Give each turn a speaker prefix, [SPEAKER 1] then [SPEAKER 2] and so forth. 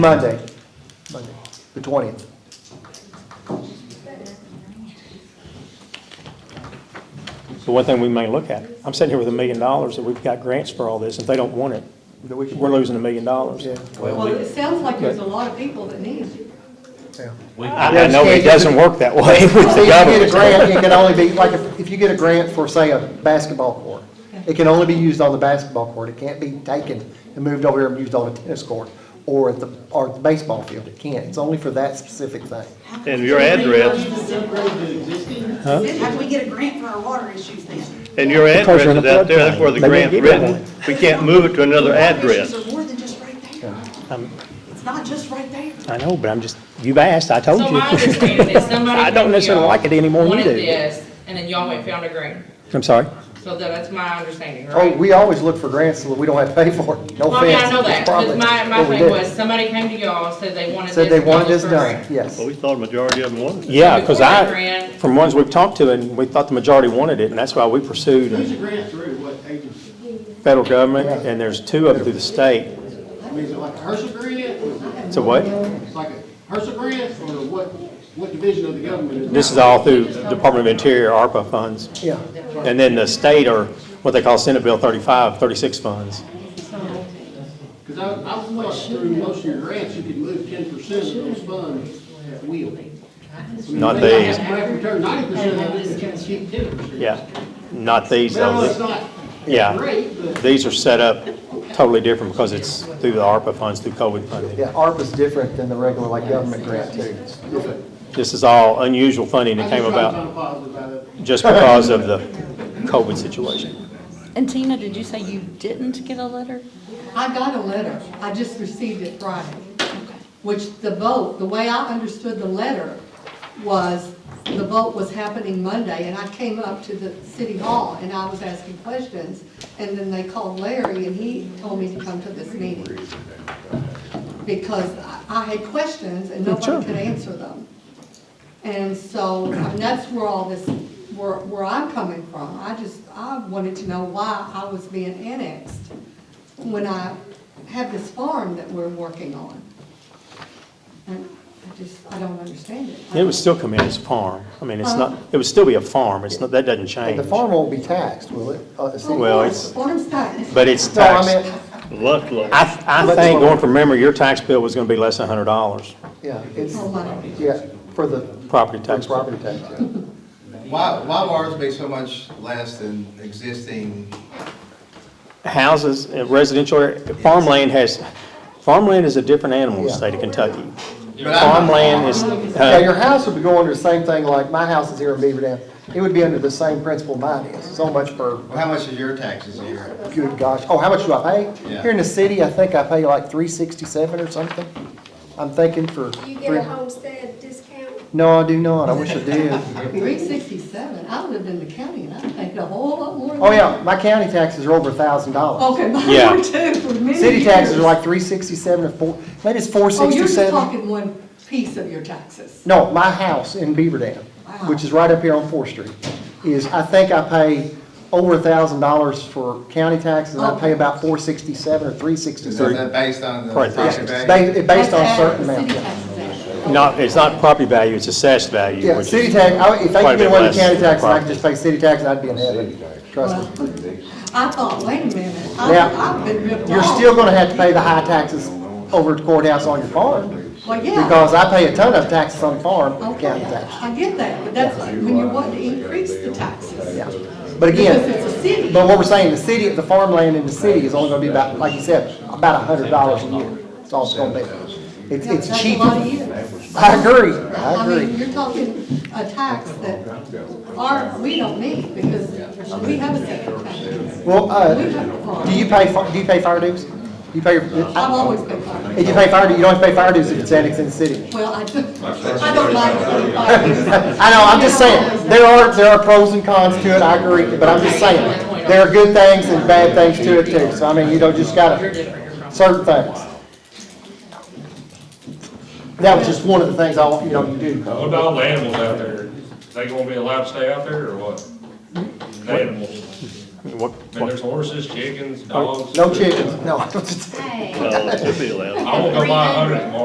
[SPEAKER 1] Monday, Monday, the twentieth.
[SPEAKER 2] The one thing we may look at, I'm sitting here with a million dollars that we've got grants for all this, if they don't want it, we're losing a million dollars.
[SPEAKER 1] Yeah,
[SPEAKER 3] Well, it sounds like there's a lot of people that need it.
[SPEAKER 1] yeah.
[SPEAKER 2] I I know it doesn't work that way with
[SPEAKER 1] See, if you
[SPEAKER 2] the
[SPEAKER 1] get a
[SPEAKER 2] government.
[SPEAKER 1] grant, it can only be, like, if- if you get a grant for, say, a basketball court, it can only be used on the basketball court. It can't be taken and moved over here and used on a tennis court or at the, or at the baseball field. It can't. It's only for that specific thing.
[SPEAKER 4] And your address,
[SPEAKER 5] How do we get a grant for our water issues then?
[SPEAKER 4] and your
[SPEAKER 2] Because
[SPEAKER 4] address
[SPEAKER 2] you're in
[SPEAKER 4] is
[SPEAKER 2] a
[SPEAKER 4] out there,
[SPEAKER 2] floodplain.
[SPEAKER 4] that's where the
[SPEAKER 2] They won't
[SPEAKER 4] grant
[SPEAKER 2] give you
[SPEAKER 4] written. We can't move it to another address.
[SPEAKER 5] Water issues are more than just right there. It's not just right there.
[SPEAKER 2] I know, but I'm just, you've asked, I told
[SPEAKER 6] So my
[SPEAKER 2] you.
[SPEAKER 6] understanding is somebody.
[SPEAKER 2] I don't
[SPEAKER 6] from
[SPEAKER 2] necessarily
[SPEAKER 6] y'all
[SPEAKER 2] like it any more than you
[SPEAKER 6] wanted
[SPEAKER 2] do.
[SPEAKER 6] this, and then y'all went found a grant.
[SPEAKER 2] I'm sorry.
[SPEAKER 6] So that- that's my understanding,
[SPEAKER 1] Oh,
[SPEAKER 6] right?
[SPEAKER 1] we always look for grants so that we don't have to pay for it. No
[SPEAKER 2] Oh,
[SPEAKER 6] Well, I mean,
[SPEAKER 1] offense.
[SPEAKER 6] I know
[SPEAKER 1] It's
[SPEAKER 6] that,
[SPEAKER 1] probably
[SPEAKER 6] because my, my
[SPEAKER 1] what we
[SPEAKER 6] thing
[SPEAKER 1] do.
[SPEAKER 6] was, somebody came to y'all, said they wanted this.
[SPEAKER 1] Said they
[SPEAKER 6] and
[SPEAKER 1] wanted
[SPEAKER 6] y'all
[SPEAKER 1] this
[SPEAKER 6] looked for a
[SPEAKER 1] done,
[SPEAKER 6] grant.
[SPEAKER 1] yes.
[SPEAKER 4] Well, we thought a majority of them wanted it.
[SPEAKER 2] Yeah, because
[SPEAKER 6] Before that
[SPEAKER 2] I,
[SPEAKER 6] grant-
[SPEAKER 2] from ones we've talked to, and we thought the majority wanted it, and that's why we pursued
[SPEAKER 7] Who's the
[SPEAKER 2] and
[SPEAKER 7] grant through, what agency?
[SPEAKER 2] federal government, and there's two of them through the state.
[SPEAKER 7] I mean, is it like a HERSA grant, or is
[SPEAKER 2] So what?
[SPEAKER 7] it- it's like a HERSA grant, or what, what division of the government is it?
[SPEAKER 2] This is all through Department of Interior, ARPA funds.
[SPEAKER 1] Yeah.
[SPEAKER 2] And then the state are what they call Senate Bill 35, 36 funds.
[SPEAKER 7] Because I, I thought through most of your grants, you could move ten percent of those funds at will.
[SPEAKER 2] Not these.
[SPEAKER 7] You have to return ninety percent of it, but you can keep ten percent.
[SPEAKER 2] Yeah, not these,
[SPEAKER 7] Well, it's
[SPEAKER 2] though.
[SPEAKER 7] not
[SPEAKER 2] Yeah.
[SPEAKER 7] great, but
[SPEAKER 2] These are set up totally different because it's through the ARPA funds, through COVID funding.
[SPEAKER 1] Yeah, ARPA's different than the regular, like, government grant too.
[SPEAKER 2] This is all unusual funding
[SPEAKER 7] I
[SPEAKER 2] that
[SPEAKER 7] just
[SPEAKER 2] came
[SPEAKER 7] trying to
[SPEAKER 2] about
[SPEAKER 7] find a positive out of it.
[SPEAKER 2] just because of the COVID situation.
[SPEAKER 8] And Tina, did you say you didn't get a letter?
[SPEAKER 3] I got a letter, I just received it Friday, which the vote, the way I understood the letter was, the vote was happening Monday, and I came up to the city hall, and I was asking questions, and then they called Larry, and he told me to come to this meeting. Because I- I had questions, and nobody could answer them. And so, I mean, that's where all this, where, where I'm coming from. I just, I wanted to know why I was being annexed when I have this farm that we're working on. And I just, I don't understand it.
[SPEAKER 2] It would still come in as farm. I mean, it's not, it would still be a farm. It's not, that doesn't
[SPEAKER 1] And
[SPEAKER 2] change.
[SPEAKER 1] the farm won't be taxed, will it? Uh, the city-
[SPEAKER 2] Well,
[SPEAKER 3] Farm-
[SPEAKER 2] it's-
[SPEAKER 3] Farm's taxed.
[SPEAKER 2] But it's
[SPEAKER 1] No, I
[SPEAKER 2] taxed.
[SPEAKER 1] meant,
[SPEAKER 4] Luck, luck.
[SPEAKER 2] I, th- I think going from memory, your tax bill was going to be less than $100,
[SPEAKER 1] yeah, it's,
[SPEAKER 3] Oh, my.
[SPEAKER 1] yeah, for the
[SPEAKER 2] property
[SPEAKER 1] Tax
[SPEAKER 2] tax.
[SPEAKER 1] property tax, yeah.
[SPEAKER 9] Why, why will ours be so much less than existing?
[SPEAKER 2] houses, uh, residential, area- farmland has, farmland is a different animal in the state of Kentucky.
[SPEAKER 9] But I'm-
[SPEAKER 2] Farmland is,
[SPEAKER 1] Yeah, your
[SPEAKER 2] uh,
[SPEAKER 1] house would be going under the same thing like my house is here in Beaver Dam. It would be under the same principle mine is, so much per,
[SPEAKER 9] Well, how much is your taxes a year?
[SPEAKER 1] good gosh, oh, how much do I pay?
[SPEAKER 9] Yeah.
[SPEAKER 1] Here in the city, I think I pay like three sixty-seven or something. I'm thinking for,
[SPEAKER 10] You get a
[SPEAKER 1] three-
[SPEAKER 10] homestead discount?
[SPEAKER 1] no, I do not, I wish I did.
[SPEAKER 3] Three sixty-seven, I lived in the county, and I paid a whole lot more. than
[SPEAKER 1] Oh,
[SPEAKER 3] that.
[SPEAKER 1] yeah, my county taxes are over a thousand dollars.
[SPEAKER 3] Okay,
[SPEAKER 2] Yeah.
[SPEAKER 3] mine were too, for many
[SPEAKER 1] City taxes are
[SPEAKER 3] years.
[SPEAKER 1] like three sixty-seven or four, maybe it's four
[SPEAKER 3] Oh, you're just
[SPEAKER 1] sixty-seven.
[SPEAKER 3] talking one piece of your taxes.
[SPEAKER 1] No, my house in Beaver Dam, which is right up here on Fourth Street, is, I think I pay over a thousand dollars for county taxes, and I pay about four sixty-seven or three
[SPEAKER 9] Is
[SPEAKER 1] sixty-seven.
[SPEAKER 9] that based on the
[SPEAKER 2] Right.
[SPEAKER 9] property
[SPEAKER 1] It's
[SPEAKER 9] value?
[SPEAKER 1] ba- it's based on a
[SPEAKER 3] That's
[SPEAKER 1] certain
[SPEAKER 3] the
[SPEAKER 1] amount,
[SPEAKER 3] city
[SPEAKER 1] yeah.
[SPEAKER 3] taxes act.
[SPEAKER 2] not, it's not property value, it's assessed value.
[SPEAKER 1] Yeah,
[SPEAKER 2] which is-
[SPEAKER 1] city tax, I- if they
[SPEAKER 2] quite a
[SPEAKER 1] could get
[SPEAKER 2] bit
[SPEAKER 1] away with
[SPEAKER 2] less
[SPEAKER 1] county
[SPEAKER 2] than
[SPEAKER 1] taxes, I could
[SPEAKER 2] property.
[SPEAKER 1] just pay city tax, and I'd be in heaven, trust me.
[SPEAKER 3] I thought, wait a minute,
[SPEAKER 1] Now,
[SPEAKER 3] I- I've been ripped off.
[SPEAKER 1] You're still gonna have to pay the high taxes over at the courthouse on your farm,
[SPEAKER 3] Well, yeah,
[SPEAKER 1] because I pay a ton of taxes on farm, county
[SPEAKER 3] okay,
[SPEAKER 1] tax.
[SPEAKER 3] I get that, but that's like when you want to increase the taxes.
[SPEAKER 1] Yeah. But
[SPEAKER 3] Because
[SPEAKER 1] again,
[SPEAKER 3] it's a city.
[SPEAKER 1] But what we're saying, the city, the farmland in the city is only gonna be about, like you said, about a hundred dollars a year. That's all it's gonna be. It's,
[SPEAKER 3] That's
[SPEAKER 1] it's
[SPEAKER 3] a
[SPEAKER 1] cheap.
[SPEAKER 3] lot of
[SPEAKER 1] I
[SPEAKER 3] years.
[SPEAKER 1] agree, I
[SPEAKER 3] I mean,
[SPEAKER 1] agree.
[SPEAKER 3] you're talking a tax that our, we don't need because we have a separate tax.
[SPEAKER 1] Well,
[SPEAKER 3] We
[SPEAKER 1] uh,
[SPEAKER 3] have a farm.
[SPEAKER 1] do you pay, fi- do you pay fire dues? You pay,
[SPEAKER 3] I've
[SPEAKER 1] if
[SPEAKER 3] always been farming.
[SPEAKER 1] you pay fire, dues, you don't have to pay fire dues if it's annexed in the city.
[SPEAKER 3] Well, I don't, I don't like city farming.
[SPEAKER 1] I know, I'm just saying, there are, there are pros and cons to it, I agree, but I'm just saying, there are good things and bad things to it too. So I mean, you know, just
[SPEAKER 6] You're
[SPEAKER 1] gotta,
[SPEAKER 6] different, you're from.
[SPEAKER 1] certain things. That was just one of the things I want, you know, to do.
[SPEAKER 11] What about all the animals out there? They gonna be allowed to stay out there or what? The Animals.
[SPEAKER 12] what,
[SPEAKER 3] Man,
[SPEAKER 12] what-
[SPEAKER 3] there's horses, chickens, dogs.
[SPEAKER 1] Oh, No chickens, no.
[SPEAKER 4] No, it'll be allowed.
[SPEAKER 3] I won't go buy a hundred tomorrow.